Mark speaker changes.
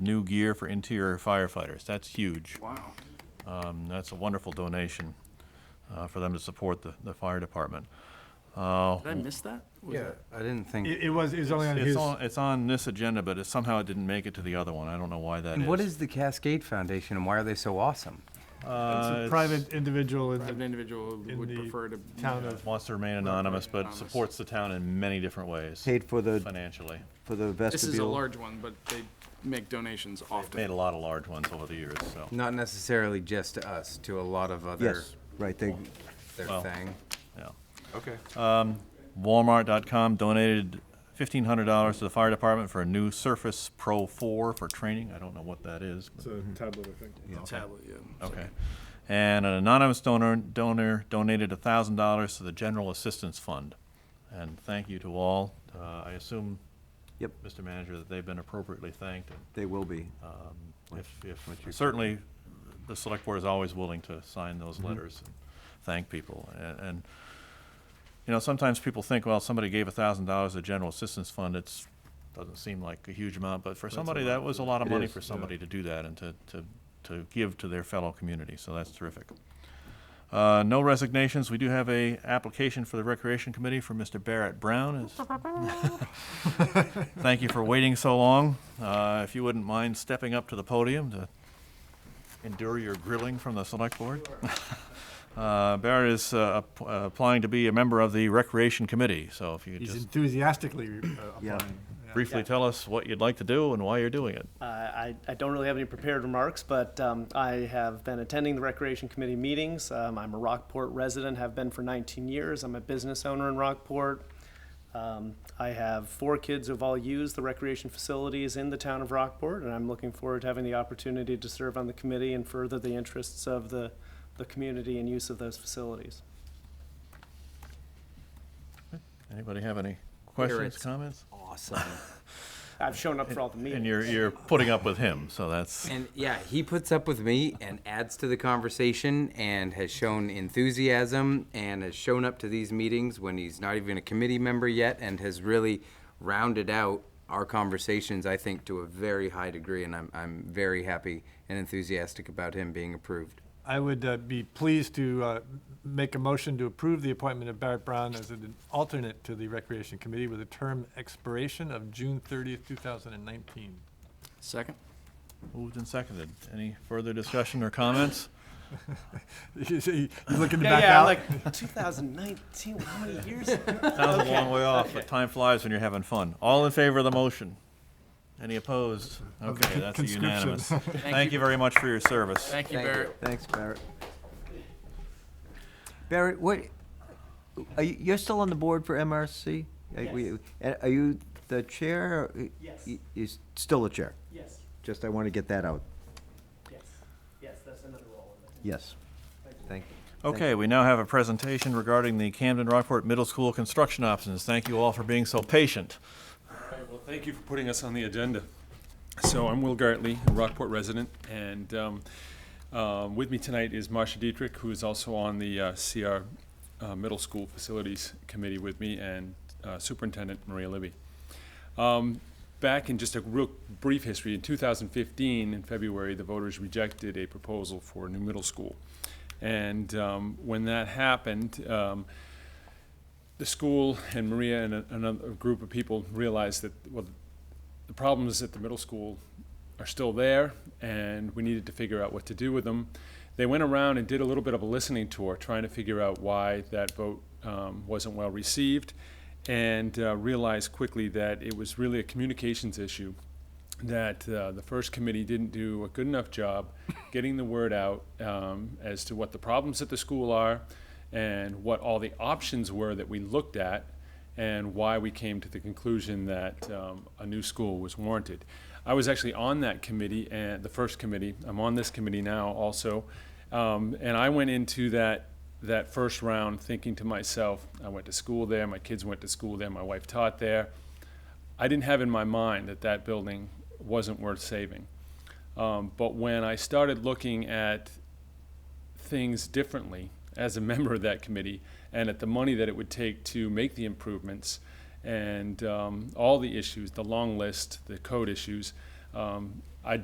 Speaker 1: new gear for interior firefighters. That's huge.
Speaker 2: Wow.
Speaker 1: Um, That's a wonderful donation uh, for them to support the, the fire department. Uh,
Speaker 2: Did I miss that? Was
Speaker 3: Yeah, I didn't think.
Speaker 4: It, it was, it was only on
Speaker 1: It's
Speaker 4: his,
Speaker 1: on, it's on this agenda, but it somehow it didn't make it to the other one. I don't know why that is.
Speaker 3: And what is the Cascade Foundation and why are they so awesome?
Speaker 4: it's
Speaker 1: Uh,
Speaker 4: a private individual in
Speaker 2: that An
Speaker 4: the
Speaker 2: individual who
Speaker 4: in
Speaker 2: would
Speaker 4: the
Speaker 2: prefer to.
Speaker 4: town of,
Speaker 1: Wants to remain anonymous, but
Speaker 2: Anonymous.
Speaker 1: supports the town in many different ways,
Speaker 5: Paid for the,
Speaker 1: financially.
Speaker 5: for the
Speaker 2: This is a
Speaker 5: vestibule.
Speaker 2: large one, but they make donations
Speaker 1: Made
Speaker 2: often.
Speaker 1: a lot of large ones over the years, so.
Speaker 3: Not necessarily just to us, to a lot of other,
Speaker 5: Yes, right, they,
Speaker 3: their
Speaker 1: Well.
Speaker 3: thing.
Speaker 1: Yeah.
Speaker 3: Okay.
Speaker 1: Walmart.com donated fifteen hundred dollars to the fire department for a new Surface Pro Four for training. I don't know what that is. but-
Speaker 4: it's a tablet, I think.
Speaker 2: Tablet, yeah.
Speaker 1: Okay. And an anonymous donor, donor donated thousand dollars to the General Assistance Fund. And thank you to all. Uh, I assume,
Speaker 5: yep,
Speaker 1: Mr. Manager, that they've been appropriately thanked. and,
Speaker 5: they will be.
Speaker 1: um, If, if, certainly, the select board is always willing to sign those
Speaker 5: Mm-hmm.
Speaker 1: letters and thank people. And, and, you know, sometimes people think, well, somebody gave a thousand dollars to General Assistance Fund, it's, doesn't seem like a huge amount, but for somebody, that was a lot of
Speaker 5: It
Speaker 1: money
Speaker 5: is,
Speaker 1: for
Speaker 5: yeah.
Speaker 1: somebody to do that and to, to, to give to their fellow community, so that's terrific. Uh, no resignations. We do have a application for the Recreation Committee for Mr. Barrett Brown. It's- Thank you for waiting so long. Uh, if you wouldn't mind stepping up to the podium to endure your grilling from the select board. Uh, Barrett is uh, app- uh, applying to be a member of the Recreation Committee, so if you could
Speaker 4: He's
Speaker 1: just
Speaker 4: enthusiastically uh,
Speaker 5: Yeah.
Speaker 4: applying. Yeah.
Speaker 1: briefly tell us what you'd like to do and why you're doing it.
Speaker 6: Uh, I, I don't really have any prepared remarks, but um, I have been attending the Recreation Committee meetings. Um, I'm a Rockport resident, have been for 19 years. I'm a business owner in Rockport. Um, I have four kids who've all used the recreation facilities in the town of Rockport, and I'm looking forward to having the opportunity to serve on the committee and further the interests of the, the community and use of those facilities.
Speaker 1: Anybody have any questions,
Speaker 3: Barrett's-
Speaker 1: comments?
Speaker 3: Awesome.
Speaker 6: I've shown up for all the
Speaker 1: And
Speaker 6: meetings.
Speaker 1: you're, you're putting up with him, so that's,
Speaker 3: And yeah, he puts up with me and adds to the conversation and has shown enthusiasm and has shown up to these meetings when he's not even a committee member yet and has really rounded out our conversations, I think, to a very high degree. And I'm, I'm very happy and enthusiastic about him being approved.
Speaker 4: I would uh, be pleased to uh, make a motion to approve the appointment of Barrett Brown as an alternate to the Recreation Committee with a term expiration of June thirtieth, two thousand and nineteen.
Speaker 2: Second?
Speaker 1: moved and seconded. Any further discussion or comments?
Speaker 4: You see- you looking to
Speaker 6: Yeah,
Speaker 4: back
Speaker 6: yeah, I'm
Speaker 4: out?
Speaker 6: like 2019, how many years? ago?
Speaker 1: Sounds a long way off, but time flies when you're having fun. All in favor of the motion? Any opposed? Okay, that's a
Speaker 4: conscription.
Speaker 1: unanimous. Thank you very much for your service.
Speaker 2: Thank you,
Speaker 3: Thank you.
Speaker 2: Barrett.
Speaker 5: Thanks, Barrett.
Speaker 3: Barrett, what,
Speaker 5: Are you, you're still on the board for MRC? Are
Speaker 6: Yes.
Speaker 5: you- and Are you the chair? or-
Speaker 6: Yes.
Speaker 5: y- You're still the chair?
Speaker 6: Yes,
Speaker 5: Just, I want to get that out.
Speaker 6: yes, yes, that's another role in it.
Speaker 5: Yes. Thank you.
Speaker 1: Okay, we now have a presentation regarding the Camden Rockport Middle School construction options. Thank you all for being so patient.
Speaker 7: All right, Well, thank you for putting us on the agenda. So I'm Will Gartley, a Rockport resident, and um, um, with me tonight is Marcia Dietrich, who is also on the uh, CR uh, Middle School Facilities Committee with me, and uh, Superintendent Maria Libby. Um, Back in just a real brief history, in 2015, in February, the voters rejected a proposal for a new middle school. And um, when that happened, um, the school and Maria and a- another group of people realized that, well, the problems at the middle school are still there, and we needed to figure out what to do with them. They went around and did a little bit of a listening tour, trying to figure out why that vote um, wasn't well received, and uh, realized quickly that it was really a communications issue that uh, the first committee didn't do a good enough job getting the word out um, as to what the problems at the school are and what all the options were that we looked at and why we came to the conclusion that um, a new school was warranted. I was actually on that committee and the first committee. I'm on this committee now also, um, and I went into that that first round thinking to myself, I went to school there, my kids went to school there, my wife taught there. I didn't have in my mind that that building wasn't worth saving. Um, but when I started looking at things differently as a member of that committee and at the money that it would take to make the improvements and um, all the issues, the long list, the code issues, Um, I